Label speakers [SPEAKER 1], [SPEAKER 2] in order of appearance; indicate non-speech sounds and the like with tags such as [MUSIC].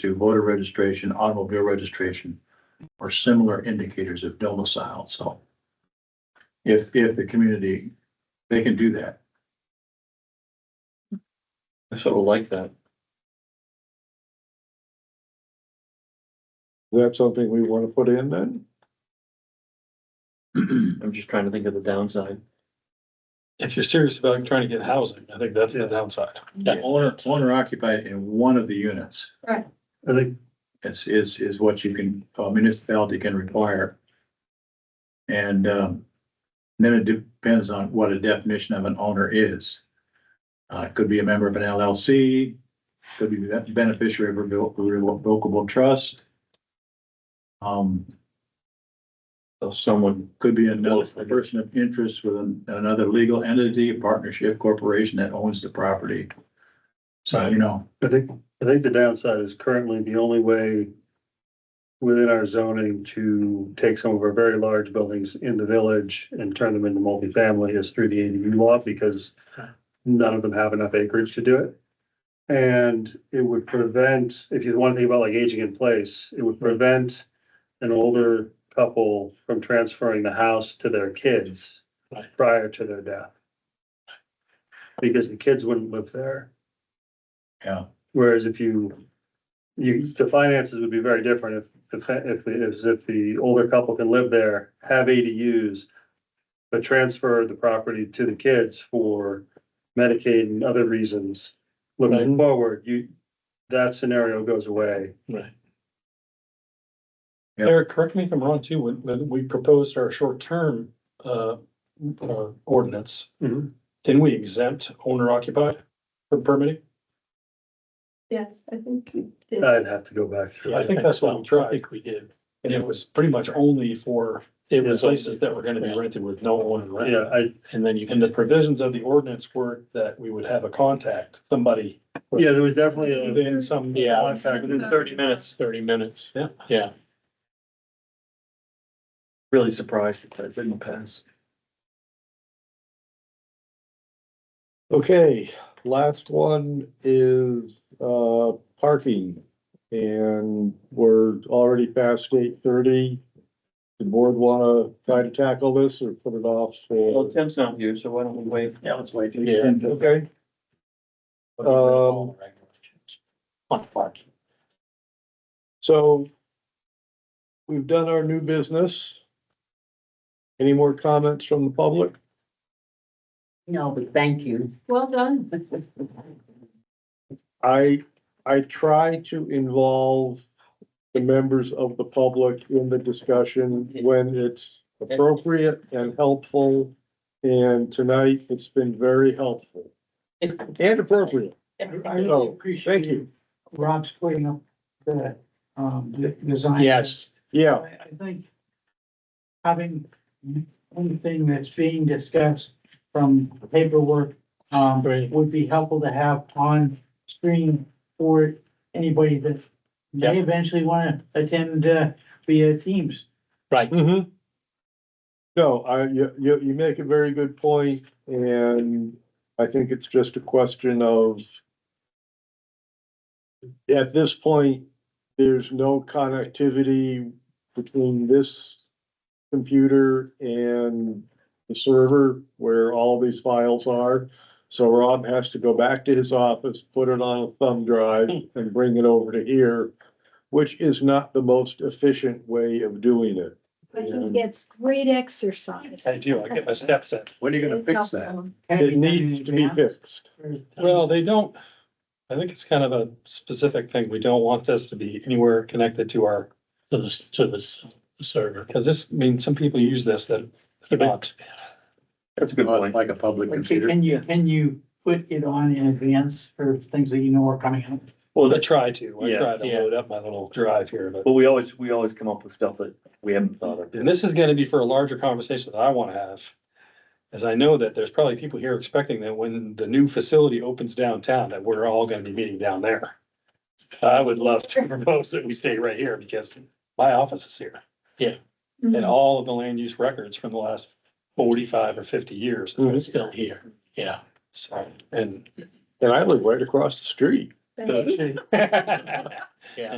[SPEAKER 1] to voter registration, automobile registration, or similar indicators of domicile, so. If, if the community, they can do that.
[SPEAKER 2] I sort of like that.
[SPEAKER 3] That's something we want to put in then?
[SPEAKER 2] I'm just trying to think of the downside.
[SPEAKER 4] If you're serious about trying to get housing, I think that's the downside.
[SPEAKER 1] The owner, owner occupied in one of the units
[SPEAKER 4] I think.
[SPEAKER 1] is, is, is what you can, a municipality can require. And, um, then it depends on what a definition of an owner is. Uh, it could be a member of an LLC, could be the beneficiary of a revo- revocable trust. Um,
[SPEAKER 2] So someone,
[SPEAKER 1] Could be another a person of interest with an- another legal entity, partnership, corporation that owns the property. So, you know,
[SPEAKER 5] I think, I think the downside is currently the only way within our zoning to take some of our very large buildings in the village and turn them into multifamily is through the ADU law because none of them have enough acreage to do it. And it would prevent, if you want to think about like aging in place, it would prevent an older couple from transferring the house to their kids
[SPEAKER 4] Right.
[SPEAKER 5] prior to their death. Because the kids wouldn't live there.
[SPEAKER 1] yeah,
[SPEAKER 5] Whereas if you, you, the finances would be very different if, the fa- if, the- if, if the older couple can live there, have ADUs. But transfer the property to the kids for Medicaid and other reasons.
[SPEAKER 4] Right.
[SPEAKER 5] Looking forward, you, that scenario goes away.
[SPEAKER 4] Right.
[SPEAKER 1] Yep.
[SPEAKER 4] Eric, correct me if I'm wrong too, when, when we proposed our short-term, uh, uh, ordinance.
[SPEAKER 5] Mhm.
[SPEAKER 4] Didn't we exempt owner occupied from permitting?
[SPEAKER 6] Yes, I think you did.
[SPEAKER 5] I'd have to go back through.
[SPEAKER 4] I
[SPEAKER 5] it.
[SPEAKER 4] think that's what we
[SPEAKER 2] I
[SPEAKER 4] tried,
[SPEAKER 2] think we did.
[SPEAKER 4] and it was pretty much only for, it was
[SPEAKER 2] Yeah.
[SPEAKER 4] places that were gonna be rented with no one rent.
[SPEAKER 5] Yeah, I,
[SPEAKER 4] And then you, and the provisions of the ordinance were that we would have a contact, somebody
[SPEAKER 5] yeah, there was definitely a
[SPEAKER 4] within some.
[SPEAKER 2] Yeah,
[SPEAKER 5] contact.
[SPEAKER 2] within thirty minutes, thirty minutes,
[SPEAKER 4] Yeah.
[SPEAKER 2] yeah. Really surprised that that didn't pass.
[SPEAKER 3] Okay, last one is uh parking. And we're already past eight thirty. The board wanna try to tackle this or put it off
[SPEAKER 2] Well,
[SPEAKER 3] for?
[SPEAKER 2] Tim's not here, so why don't we wait?
[SPEAKER 1] yeah, let's wait. till
[SPEAKER 2] Yeah.
[SPEAKER 1] you-
[SPEAKER 3] Okay, Um,
[SPEAKER 2] On parking.
[SPEAKER 3] so. We've done our new business. Any more comments from the public?
[SPEAKER 7] No, but thank you. [LAUGHS]
[SPEAKER 6] Well done.
[SPEAKER 3] I, I try to involve the members of the public in the discussion when it's appropriate and helpful. And tonight, it's been very helpful and appropriate.
[SPEAKER 8] I
[SPEAKER 3] So,
[SPEAKER 8] really
[SPEAKER 3] Thank
[SPEAKER 8] appreciate
[SPEAKER 3] you.
[SPEAKER 8] Rob's putting up the, um, the design.
[SPEAKER 2] Yes,
[SPEAKER 8] I,
[SPEAKER 3] Yeah,
[SPEAKER 8] I think having one thing that's being discussed from paperwork, um,
[SPEAKER 2] Right.
[SPEAKER 8] would be helpful to have on screen for anybody that may eventually want to attend, uh, via Teams.
[SPEAKER 3] mhm. No, I, you, you, you make a very good point, and I think it's just a question of at this point, there's no connectivity between this computer and the server where all these files are. So Rob has to go back to his office, put it on a thumb drive and bring it over to here, which is not the most efficient way of doing it.
[SPEAKER 9] But he gets great exercise.
[SPEAKER 4] I do, I get my steps in.
[SPEAKER 1] When are you gonna fix that?
[SPEAKER 8] Can
[SPEAKER 3] It
[SPEAKER 8] be done in
[SPEAKER 3] needs to be
[SPEAKER 8] advance,
[SPEAKER 3] fixed.
[SPEAKER 8] or-
[SPEAKER 4] Well, they don't, I think it's kind of a specific thing. We don't want this to be anywhere connected to our,
[SPEAKER 2] to the, to the s- server.
[SPEAKER 4] because this, I mean, some people use this that are not.
[SPEAKER 2] That's a good point.
[SPEAKER 1] Like a public
[SPEAKER 8] Like,
[SPEAKER 1] computer.
[SPEAKER 8] Can you, can you put it on in advance for things that you know are coming up?
[SPEAKER 4] Well, I try to, I
[SPEAKER 2] Yeah,
[SPEAKER 4] try to
[SPEAKER 2] yeah.
[SPEAKER 4] load up my little drive here, but.
[SPEAKER 2] But we always, we always come up with stuff that we haven't thought of.
[SPEAKER 4] And this is gonna be for a larger conversation that I wanna have. As I know that there's probably people here expecting that when the new facility opens downtown, that we're all gonna be meeting down there. I would love to propose that we stay right here because my office is here.
[SPEAKER 2] Yeah.
[SPEAKER 4] And
[SPEAKER 3] Mm-hmm.
[SPEAKER 4] all of the land use records from the last forty-five or fifty years that are
[SPEAKER 3] Mhm.
[SPEAKER 4] still
[SPEAKER 2] here, yeah.
[SPEAKER 4] so, and
[SPEAKER 3] And I live right across the street.
[SPEAKER 4] [LAUGHS] Yeah.